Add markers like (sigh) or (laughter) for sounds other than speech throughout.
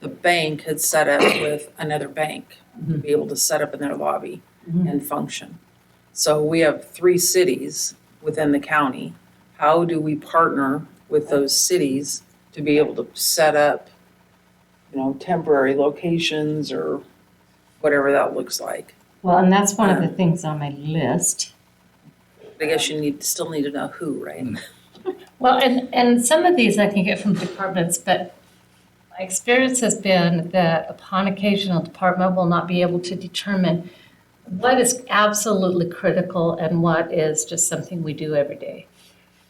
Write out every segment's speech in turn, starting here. the bank had set up with another bank to be able to set up in their lobby Mhm. and function. So we have three cities within the county. How do we partner with those cities to be able to set up, you know, temporary locations or whatever that looks like? Well, and that's one of the things on my list. But I guess you need, still need to know who, right? Well, and, and some of these I can get from departments, but my experience has been that upon occasion, a department will not be able to determine what is absolutely critical and what is just something we do every day.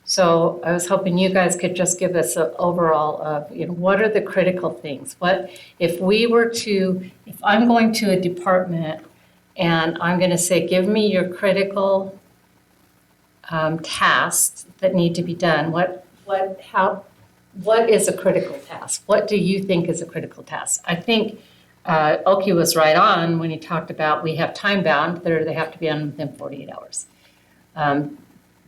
So I was hoping you guys could just give us an overall of, you know, what are the critical things? What, if we were to, if I'm going to a department and I'm gonna say, give me your critical um, tasks that need to be done, what, what, how, what is a critical task? What do you think is a critical task? I think uh, Oki was right on when he talked about we have time bound, they're, they have to be done within 48 hours. Um,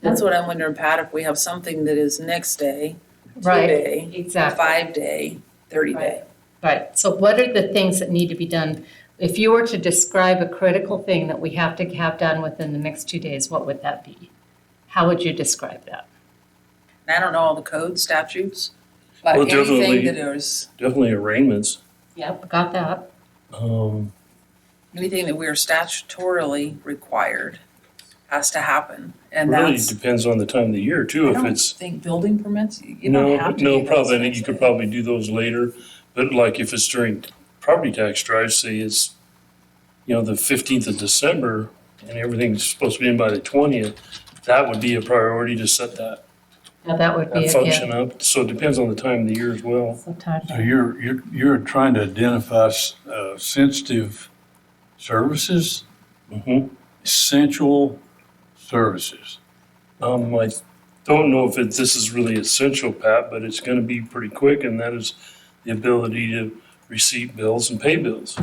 That's what I'm wondering, Pat, if we have something that is next day, Right, two-day, exactly. five-day, thirty-day. Right, so what are the things that need to be done? If you were to describe a critical thing that we have to have done within the next two days, what would that be? How would you describe that? And I don't know all the code statutes, but Well, anything definitely. that is, Definitely arraignments. Yep, got that. Um, anything that we are statutorily required has to happen. And really that's, depends on the time of the year too. I If don't it's, think building permits, you you no, don't have to. no, do those probably, I think things. you could probably do those later. But like if it's during property tax drive, say it's, you know, the fifteenth of December and everything's supposed to be in by the twentieth, that would be a priority to set that, Now, that would be, that yeah, function up. So it depends on the time of the year as well. sometimes. So you're, you're, you're trying to identify uh, sensitive services, Mhm. essential services. Um, I don't know if it, this is really essential, Pat, but it's gonna be pretty quick and that is the ability to receive bills and pay bills.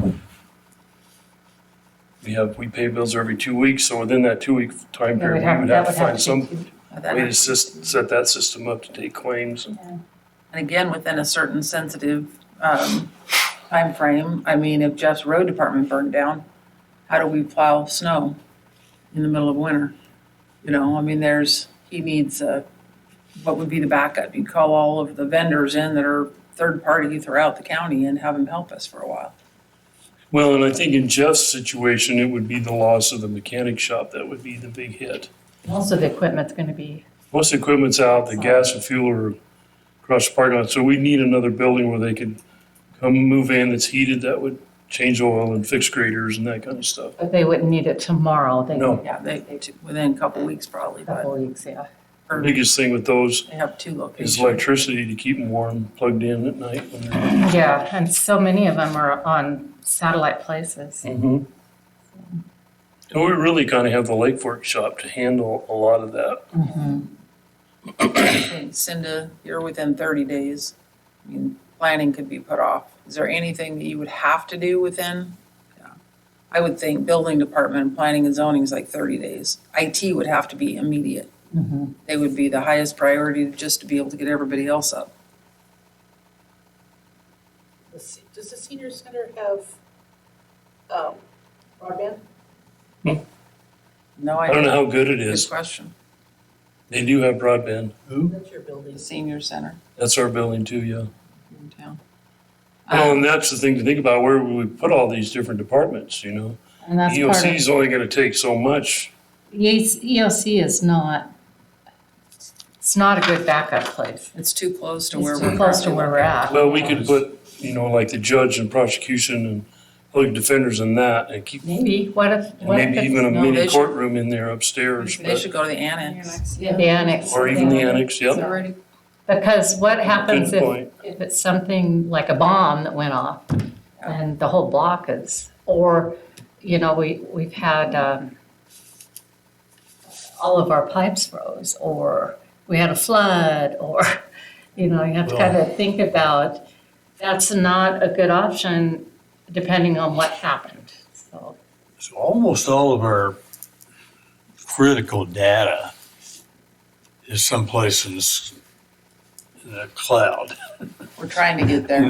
We have, we pay bills every two weeks, so within that two-week time That would period, we have, would that have to would have find to some be. But way to that- sys- set that system up to take claims. And again, within a certain sensitive um, timeframe, I mean, if Jeff's road department burned down, how do we plow snow in the middle of winter? You know, I mean, there's, he needs a, what would be the backup? You call all of the vendors in that are third party throughout the county and have them help us for a while. Well, and I think in Jeff's situation, it would be the loss of the mechanic shop that would be the big hit. Also, the equipment's gonna be, Most equipment's out, the gas and fuel are across the parking lot, so we need another building where they could come move in that's heated, that would change oil and fix graders and that kind of stuff. but they wouldn't need it tomorrow, they No. need Yeah, they, within a couple weeks probably, a but couple weeks, yeah. The Biggest thing with those they have two is locations. electricity to keep them warm, plugged in at night. when they're- Yeah, and so many of them are on satellite places. And we really kind of have the Lake Fork shop to handle a lot of that. Hey, (clears throat) Cinda, you're within thirty days. I mean, planning could be put off. Is there anything that you would have to do within? Yeah. I would think building department, planning and zoning is like thirty days. IT would have to be immediate. Mm-hmm. They would be the highest priority just to be able to get everybody else up. The se- Does the senior center have um, broadband? No I don't know idea. how good it Good is. question. They do have broadband. Who? That's your building. The senior center That's our building too, yeah. here in town. Well, Um, and that's the thing to think about, where would we put all these different departments, you know? And that's part EOC of, E E is only gonna take so much. Yes, EOC is not, it's not a good backup place. It's too close to where It's we're. too close to where we're at. Well, we could put, you know, like the judge and prosecution and public defenders and that and keep, and Maybe, what if, what if maybe even a it's, no, they mini should- courtroom in there upstairs, They but, should go to the annex. the annex? or even the annex, It's yep. already- Because what happens Good if, point. if it's something like a bomb that went off and the whole block is, or, you know, we, we've had, um, all of our pipes froze, or we had a flood, (laughs) or, you know, you have to kind of think about, that's not a good option depending on what happened, so. So almost all of our critical data is someplace in the s- in the cloud. We're trying to get there.